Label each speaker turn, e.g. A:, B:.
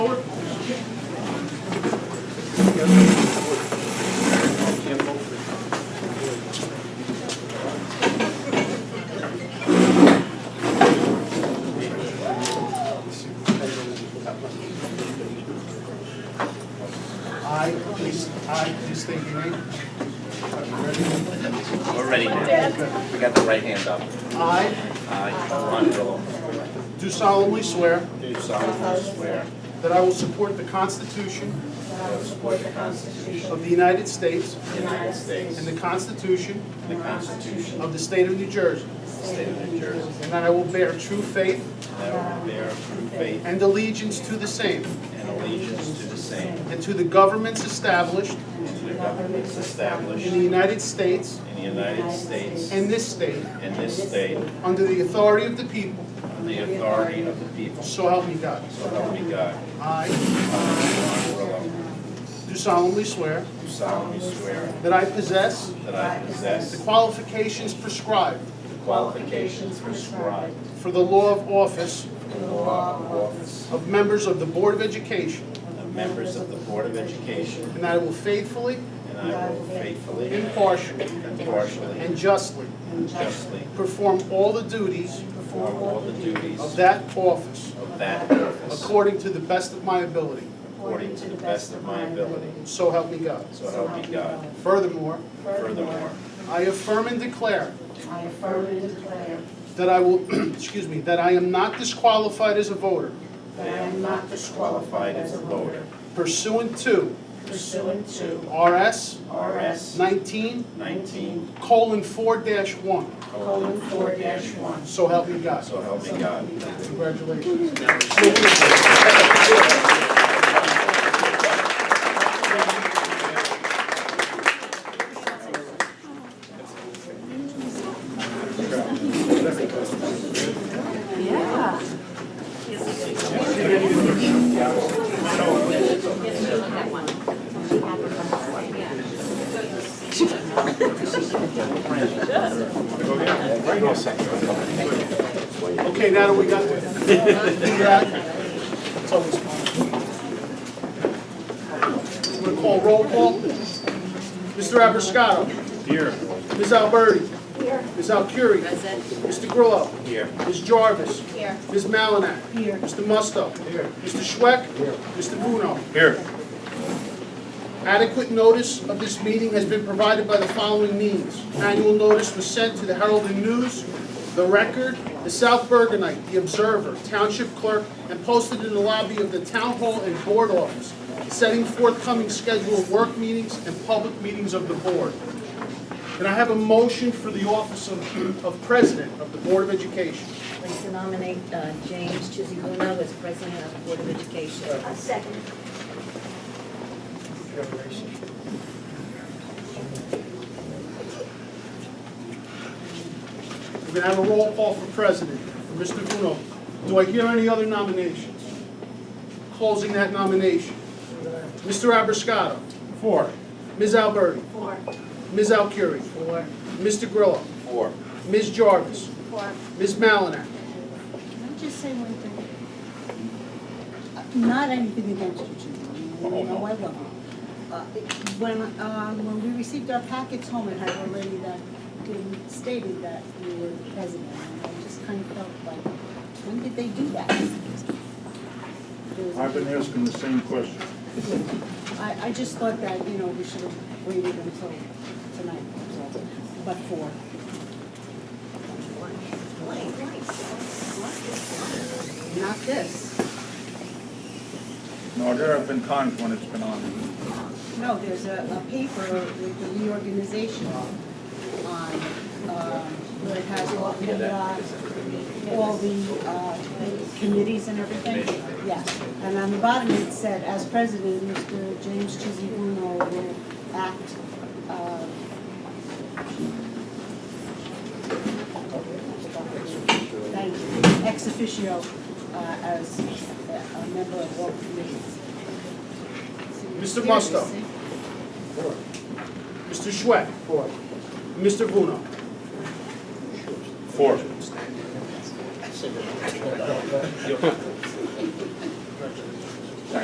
A: I, please, I, please state your name. Are you ready?
B: We're ready now. We got the right hand up.
A: I
B: I, Ron Villa,
A: do solemnly swear
B: do solemnly swear
A: that I will support the Constitution
B: that I will support the Constitution
A: of the United States
B: of the United States
A: and
B: and
A: the Constitution
B: the Constitution
A: of the State of New Jersey,
B: of the State of New Jersey,
A: and that I will bear true faith
B: and that I will bear true faith
A: and allegiance to the same
B: and allegiance to the same
A: and to the governments established
B: and to the governments established
A: in the United States
B: in the United States
A: and this state
B: and this state
A: under the authority of the people,
B: on the authority of the people.
A: so help me God.
B: So help me God.
A: I
B: I, Ron Villa,
A: do solemnly swear
B: do solemnly swear
A: that I possess
B: that I
A: the
B: possess
A: qualifications prescribed
B: the qualifications prescribed
A: for the law of office
B: in the law of office
A: of members of the Board of Education,
B: of uh, members of the Board of Education,
A: and that I will faithfully,
B: and I will faithfully,
A: impartially,
B: impartially,
A: and justly
B: and justly
A: perform all the duties
B: perform all the duties
A: of
B: of
A: that office
B: that office
A: according to the best of my ability,
B: according to the best of my ability.
A: so help me God.
B: So help me God.
A: Furthermore,
B: Furthermore,
A: I affirm and declare
C: I affirm and declare
A: that I will, excuse me, that I am not disqualified as a voter
C: that I am not
B: disqualified as a voter
A: pursuant to
C: pursuant to
A: RS
B: RS
A: 19
B: nineteen
A: colon 4-1,
C: colon four dash one.
A: so help me God.
B: So help me God.
A: Congratulations. Okay, now that we got the, that, it's always fun. We're gonna call roll call. Mr. Abiscato. Here. Ms. Alberti. Here. Ms. Alciuri. Mr. Grillo.
B: Here.
A: Ms. Jarvis. Here. Ms. Malinak. Here. Mr. Musto. Here. Mr. Schweck. Here. Mr. Bruno.
B: Here.
A: Adequate notice of this meeting has been provided by the following means. Annual notice was sent to the Herald and News, The Record, The South Bergenite, The Observer, Township Clerk, and posted in the lobby of the Town Hall and Board Office, setting forthcoming schedule of work meetings and public meetings of the Board. And I have a motion for the office of of President of the Board of Education.
D: I'd like to nominate uh, James Chizikuna as president of the Board of Education.
C: A second.
A: We're gonna have a roll call for president, for Mr. Bruno. Do I hear any other nominations? Closing that nomination. Mr. Abiscato. Four. Ms. Alberti.
C: Four.
A: Ms. Alciuri.
D: Four,
A: Mr. Grillo.
B: Four.
A: Ms. Jarvis.
C: Four.
A: Ms. Malinak.
E: Can I just say one thing? Uh, Not anything against you, Jim.
F: Oh,
E: You know, I love you. Uh, it- When, uh, when we received our packets home, it had already that, been stated that you were the president. And I just kind of felt like, when did they do that? There was-
F: I've been asking the same question.
E: I, I just thought that, you know, we should have waited until tonight, so, but for. Not this.
F: No, there have been times when it's been on.
E: No, there's a, a paper with the reorganization on, um, where it has all the, uh, all the, uh, committees and everything. Yeah, and on the bottom it said, as president, Mr. James Chizikuna will act, uh. Thank you, ex officio, uh, as a a member of all committees.
A: Mr. Musto.
E: Seriously?
A: Mr. Schweck. Four. Mr. Bruno.
F: Four.